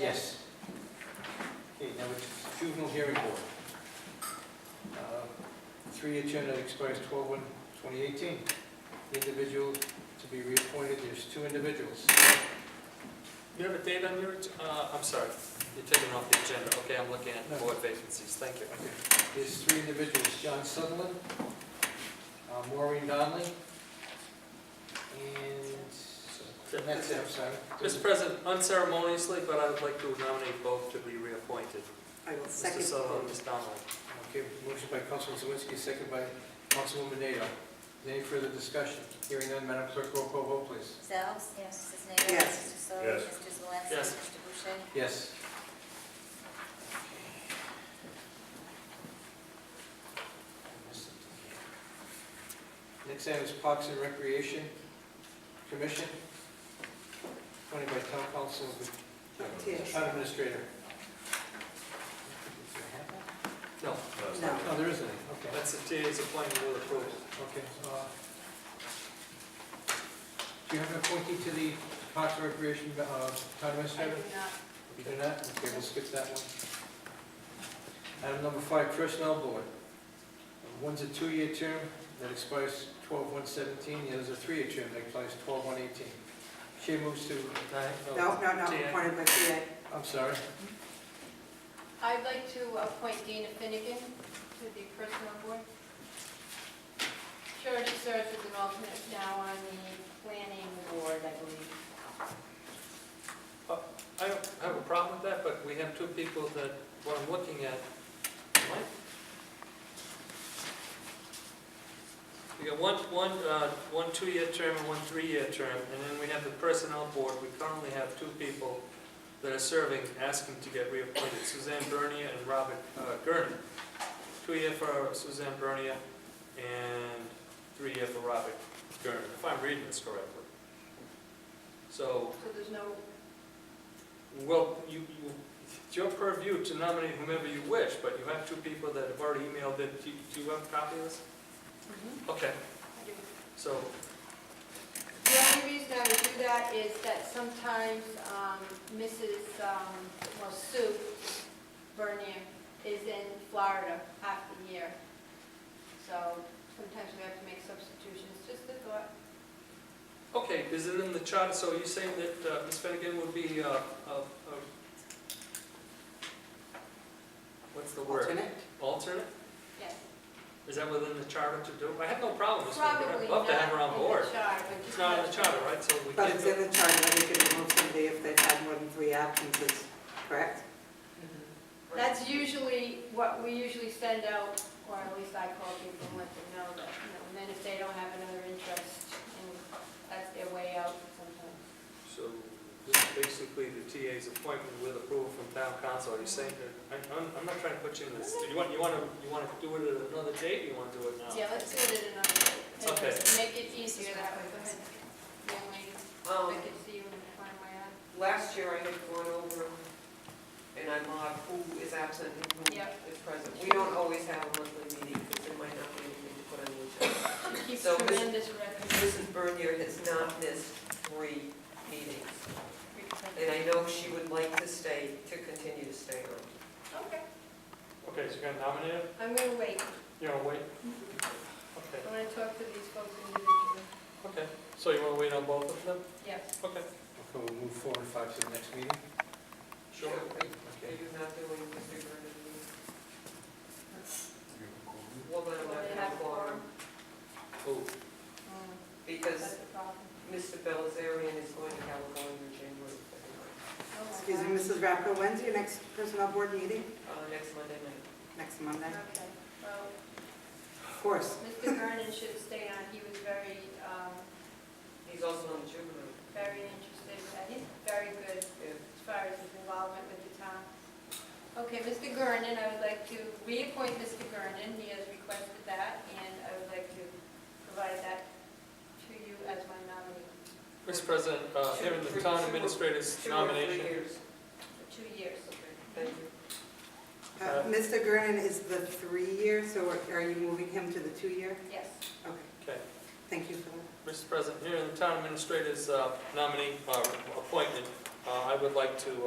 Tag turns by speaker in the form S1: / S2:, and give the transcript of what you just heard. S1: Yes. Okay, now it's juvenile hearing board. Uh, Three-year term that expires 12/1/2018. The individual to be reappointed, there's two individuals.
S2: You have a date on your, uh, I'm sorry, you're taking it off the agenda. Okay, I'm looking at board vacancies, thank you.
S1: There's three individuals, John Sutherland, uh, Maureen Donnelly, and that's it, I'm sorry.
S2: Mr. President, unceremoniously, but I would like to nominate both to be reappointed.
S3: I will
S2: Mr.
S3: second.
S2: Sutherland, Ms. Donnelly.
S1: Okay, motion by Councilman Zawinski, second by Councilwoman Nato. Any further discussion? Hearing none, Madam Clerk, roll call vote, please.
S4: Mrs. Alves? Yes. Mrs. Nato?
S3: Yes.
S4: Mr. Soli?
S5: Yes.
S4: Mr. Zalinski?
S2: Yes.
S4: Mr. Boucher?
S1: Yes. Next item is Parks and Recreation Commission, appointed by Town Council,
S3: Yes.
S1: Town Administrator.
S2: No,
S3: No.
S1: No, Oh, there isn't any, okay.
S2: that's the TA's appointment with approval.
S1: Okay, uh, do you have an appointee to the Parks and Recreation, uh, Town
S3: I do
S1: Administrator?
S3: not.
S1: You do not? Okay, we'll skip that one. Item number five, Personnel Board. One's a two-year term that expires twelve one seventeen, the other's a three-year term that expires twelve one eighteen. Chair moves to,
S3: No, no, no,
S2: TA.
S3: appointed by TA.
S1: I'm sorry,
S6: I'd like to appoint Dana Finnegan to the Personnel Board. She already serves as an alternate now on the Planning Board, I believe.
S2: I don't have a problem with that, but we have two people that, what I'm looking at, Mike? We got one, one, uh, one two-year term and one three-year term, and then we have the Personnel Board. We currently have two people that are serving, asking to get reappointed, Suzanne Bernier and Robert uh, Gurney. Two-year for Suzanne Bernier and three-year for Robert Gurney, if I'm reading this correctly. So
S6: So there's no,
S2: well, you, you, it's your purview to nominate whomever you wish, but you have two people that have already emailed it. Do you- do you have a copy of this?
S6: Mm-hmm.
S2: Okay,
S6: I do
S2: so,
S6: The only reason I would do that is that sometimes um, Mrs., um, well, Sue Bernier is in Florida half the year. So sometimes we have to make substitutions, just a thought.
S2: okay, is it in the charter? So are you saying that uh, Ms. Finnegan would be, uh, a- a- what's the word?
S3: Alternate?
S2: Alternate?
S6: Yes.
S2: Is that within the charter to do? I have no problem, Ms. Finnegan.
S6: Probably
S2: I'd
S6: not
S2: love
S6: in
S2: to have her on board.
S6: the charter. but
S2: It's not in the charter, right? So we
S3: But
S2: can't
S3: it's
S2: do
S3: in
S2: it.
S3: the charter that we can remove somebody if they've had more than three absences, correct?
S6: That's usually what we usually send out, or at least I call people and let them know that, you know, and then if they don't have another interest, and that's their way out sometimes.
S2: So this is basically the TA's appointment with approval from town council. Are you saying that, I- I'm, I'm not trying to put you in this, do you want, you want to, you want to do it at another date, or you want to do it now?
S6: Yeah, let's do it at another day.
S2: Oh. Okay.
S6: Just Make it easier that way, go ahead. Young lady,
S7: Um,
S6: I can see you in front of my eye.
S7: Last year I had gone over and I marked who is absent and who
S6: Yep.
S7: is present. We don't always have a monthly meeting because there might not be anything to put on the agenda.
S6: She keeps
S7: So, Miss-
S6: tremendous records.
S7: Mrs. Bernier has not missed three meetings. And I know she would like to stay, to continue to stay on.
S6: Okay,
S2: Okay, so you're going to nominate her?
S6: I'm gonna wait.
S2: You're going to wait? Okay,
S6: I wanna talk to these folks individually.
S2: okay. So you want to wait on both of them?
S6: Yes.
S2: Okay,
S1: okay, we'll move four and five to the next meeting.
S2: sure.
S7: Are you-
S1: Okay.
S7: are you not doing Mr. Bernier? Well, then I'm not
S6: They
S7: going
S6: have
S7: to
S6: a forum.
S2: Oh,
S6: Mm, That's
S7: because
S6: the problem.
S7: Mr. Belazarian is going to California January, February,
S6: Oh, my
S3: Excuse me,
S6: God.
S3: Mrs. Rapco, when's your next personnel board meeting?
S7: uh, next Monday night.
S3: Next Monday?
S6: Okay, well,
S3: Of course.
S6: Mr. Vernon should stay on, he was very, um,
S7: He's also on the juvenile.
S6: very interested, and he's very good
S7: Yeah.
S6: as far as his involvement with the town. Okay, Mr. Gernon, I would like to reappoint Mr. Gernon, he has requested that, and I would like to provide that to you as my nominee
S2: Mr. President, uh,
S7: Two,
S2: here in the
S7: three,
S2: town
S7: two,
S2: administrator's
S7: Two or three
S2: nomination.
S7: years.
S6: for two years.
S7: Okay, thank you.
S3: Uh, Mr. Gernon is the three-year, so are- are you moving him to the two-year?
S6: Yes.
S3: Okay,
S2: Okay.
S3: thank you for that.
S2: Mr. President, here in the town administrator's uh, nominee, uh, appointment, uh, I would like to